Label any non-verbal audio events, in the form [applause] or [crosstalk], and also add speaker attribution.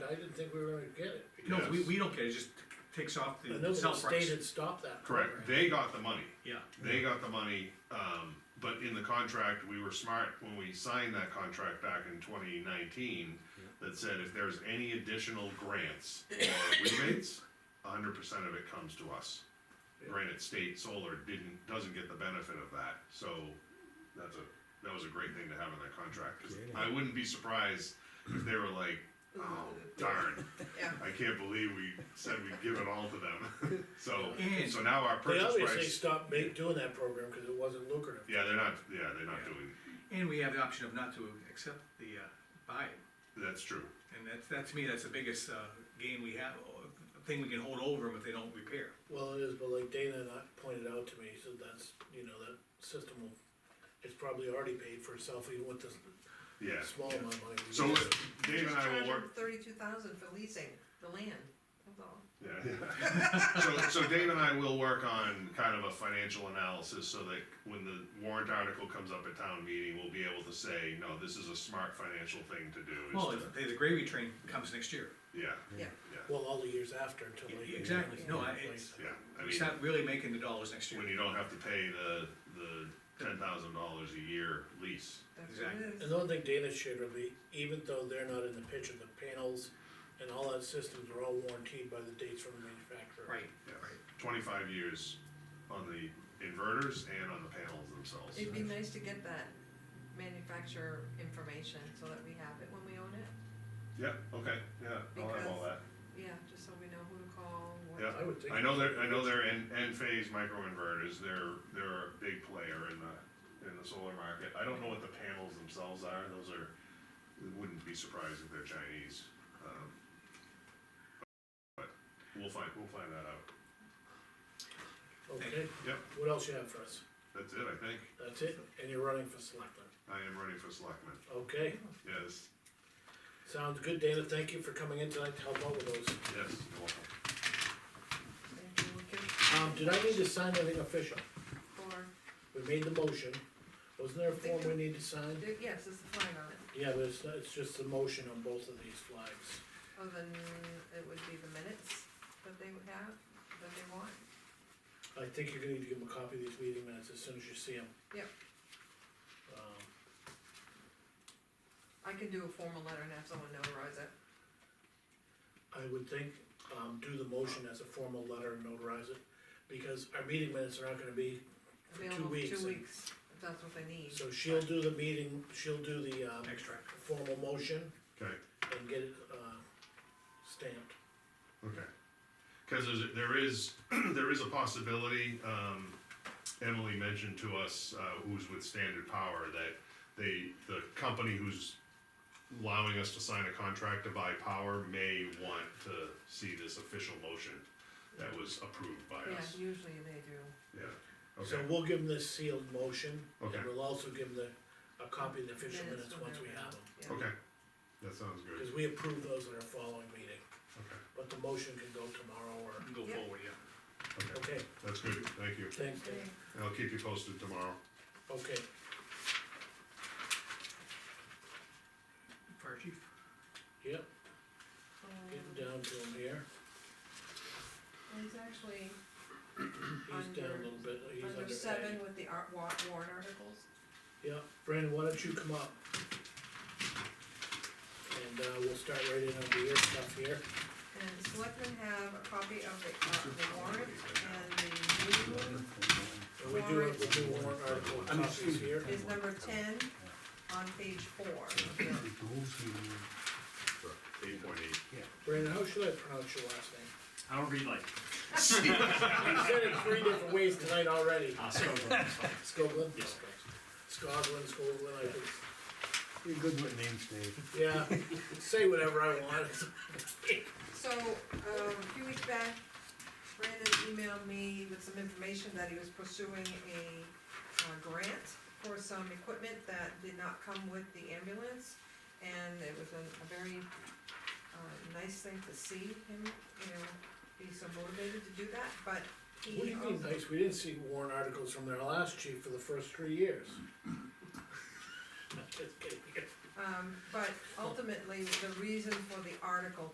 Speaker 1: I didn't think we were gonna get it.
Speaker 2: No, we,
Speaker 3: Yes.
Speaker 2: we don't get it, it just takes off
Speaker 1: I
Speaker 2: the
Speaker 1: know the
Speaker 2: sell
Speaker 1: state
Speaker 2: price.
Speaker 1: had stopped that.
Speaker 3: Correct,
Speaker 1: program.
Speaker 3: they got the money,
Speaker 2: Yeah,
Speaker 3: they got the money, um, but in the contract, we were smart when we signed that contract back in twenty nineteen. That said, if there's any additional grants or rebates, hundred percent of it comes to us. Granted, state solar didn't, doesn't get the benefit of that, so that's a, that was a great thing to have in that contract, 'cause I wouldn't be surprised if they were like, oh darn. [laughs]
Speaker 4: Yeah.
Speaker 3: I can't believe we said we'd give it all to them, [laughs] so,
Speaker 2: And-
Speaker 3: so now our
Speaker 1: They
Speaker 3: purchase price.
Speaker 1: obviously stopped ma- doing that program because it wasn't lucrative.
Speaker 3: Yeah, they're not, yeah, they're not doing,
Speaker 2: and we have the option of not to accept the, uh, buy it,
Speaker 3: that's true,
Speaker 2: and that's, that to me, that's the biggest, uh, gain we have, or thing we can hold over them if they don't repair.
Speaker 1: Well, it is, but like Dana and I pointed out to me, he said that's, you know, that system will, it's probably already paid for itself even with the
Speaker 3: yeah.
Speaker 1: small amount of money. we
Speaker 3: So
Speaker 1: get.
Speaker 3: Dave and I will work,
Speaker 4: Thirty-two thousand for leasing the land, that's all.
Speaker 3: yeah. So, so Dave and I will work on kind of a financial analysis so that when the warrant article comes up at town meeting, we'll be able to say, no, this is a smart financial thing to do.
Speaker 2: Well,
Speaker 3: is
Speaker 2: if the, the gravy train comes next year.
Speaker 3: to- Yeah,
Speaker 4: Yeah,
Speaker 3: yeah,
Speaker 1: Well, all the years after until like.
Speaker 2: Exactly, no, I- it's,
Speaker 3: yeah, I
Speaker 2: we
Speaker 3: mean,
Speaker 2: start really making the dollars next year.
Speaker 3: when you don't have to pay the, the ten thousand dollars a year lease,
Speaker 4: that's what it is.
Speaker 1: And the one thing Dana shared with me, even though they're not in the picture, the panels and all that systems are all warranted by the dates from the manufacturer.
Speaker 2: Right,
Speaker 3: yeah, twenty-five years on the inverters and on the panels themselves.
Speaker 4: It'd be nice to get that manufacturer information so that we have it when we own it,
Speaker 3: Yeah, okay, yeah, I'll have all
Speaker 4: Because-
Speaker 3: that.
Speaker 4: yeah, just so we know who to call, what.
Speaker 3: Yeah,
Speaker 1: I would think-
Speaker 3: I know they're, I know they're in, end phase microinverters, they're, they're a big player in the, in the solar market. I don't know what the panels themselves are, those are, it wouldn't be surprised if they're Chinese. um, But we'll find, we'll find that out.
Speaker 1: Okay,
Speaker 3: Yep,
Speaker 1: what else you have for us?
Speaker 3: that's it, I think.
Speaker 1: That's it, and you're running for selectman,
Speaker 3: I am running for selectman,
Speaker 1: okay?
Speaker 3: yes,
Speaker 1: Sounds good, Dana, thank you for coming in tonight to help out with those.
Speaker 3: yes, you're welcome.
Speaker 4: Thank you, Lucas,
Speaker 1: Um, did I need to sign anything official?
Speaker 4: for,
Speaker 1: We made the motion, wasn't there a form we need to sign?
Speaker 4: there- yes, there's a flag on it,
Speaker 1: Yeah, but it's, not- it's just a motion on both of these flags.
Speaker 4: other than Oh, it would be the minutes that they would have, that they want.
Speaker 1: I think you're gonna need to give them a copy of these meeting minutes as soon as you see them.
Speaker 4: Yep.
Speaker 1: Um,
Speaker 4: I can do a formal letter and have someone notarize it,
Speaker 1: I would think, um, do the motion as a formal letter and notarize it, because our meeting minutes are not gonna be for two
Speaker 4: available
Speaker 1: weeks.
Speaker 4: two
Speaker 1: and-
Speaker 4: weeks, if that's what they need.
Speaker 1: So she'll do the meeting, she'll do the, um,
Speaker 2: extract.
Speaker 1: formal motion
Speaker 3: Okay.
Speaker 1: and get it, uh, stamped.
Speaker 3: Okay. Cause there's, there is, [clears throat] there is a possibility, um, Emily mentioned to us, uh, who's with Standard Power, that they, the company who's allowing us to sign a contract to buy power may want to see this official motion that was approved by
Speaker 4: Yeah,
Speaker 3: us.
Speaker 4: usually they do.
Speaker 3: Yeah,
Speaker 1: So
Speaker 3: okay,
Speaker 1: we'll give them this sealed motion,
Speaker 3: Okay.
Speaker 1: and we'll also give them the, a copy of the official
Speaker 4: Minutes
Speaker 1: minutes
Speaker 4: when
Speaker 1: once
Speaker 4: they're
Speaker 1: we have
Speaker 4: available,
Speaker 1: them.
Speaker 4: yeah.
Speaker 3: okay, that sounds good,
Speaker 1: Cause we approve those in our following meeting,
Speaker 3: okay,
Speaker 1: but the motion can go tomorrow or,
Speaker 2: Go
Speaker 4: Yeah.
Speaker 2: forward, yeah.
Speaker 3: okay,
Speaker 1: okay,
Speaker 3: that's good, thank you,
Speaker 1: thanks, Dave,
Speaker 3: I'll keep you posted tomorrow.
Speaker 1: okay.
Speaker 2: Fire chief.
Speaker 1: Yep,
Speaker 4: Um,
Speaker 1: getting down to him here,
Speaker 4: He's actually
Speaker 1: he's down a little bit, he's under A.
Speaker 4: under seven with the art, wa- warrant articles.
Speaker 1: Yeah, Brandon, why don't you come up? And, uh, we'll start right in on your stuff here.
Speaker 4: And the selectmen have a copy of the, uh, the warrant and the
Speaker 1: And we do have the two warrant article copies here.
Speaker 4: new is number ten on page four.
Speaker 3: Eight point eight.
Speaker 1: Brandon, how should I pronounce your last name?
Speaker 5: I don't read like
Speaker 1: [laughs]
Speaker 5: [laughs]
Speaker 1: You said it three different ways tonight already.
Speaker 5: Ah, Oscar.
Speaker 1: Scoglin?
Speaker 5: Yes.
Speaker 1: Scoglin, Scoglin, I think,
Speaker 6: You're good with names, Dave.
Speaker 1: yeah, say whatever I want.
Speaker 4: So, um, a few weeks back, Brandon emailed me with some information that he was pursuing a, uh, grant for some equipment that did not come with the ambulance. And it was a, a very, uh, nice thing to see him, you know, be so motivated to do that, but he.
Speaker 1: What do you mean,
Speaker 4: also-
Speaker 1: nice, we didn't see warrant articles from their last chief for the first three
Speaker 5: [laughs]
Speaker 1: years. Just kidding.
Speaker 4: Um, but ultimately, the reason for the article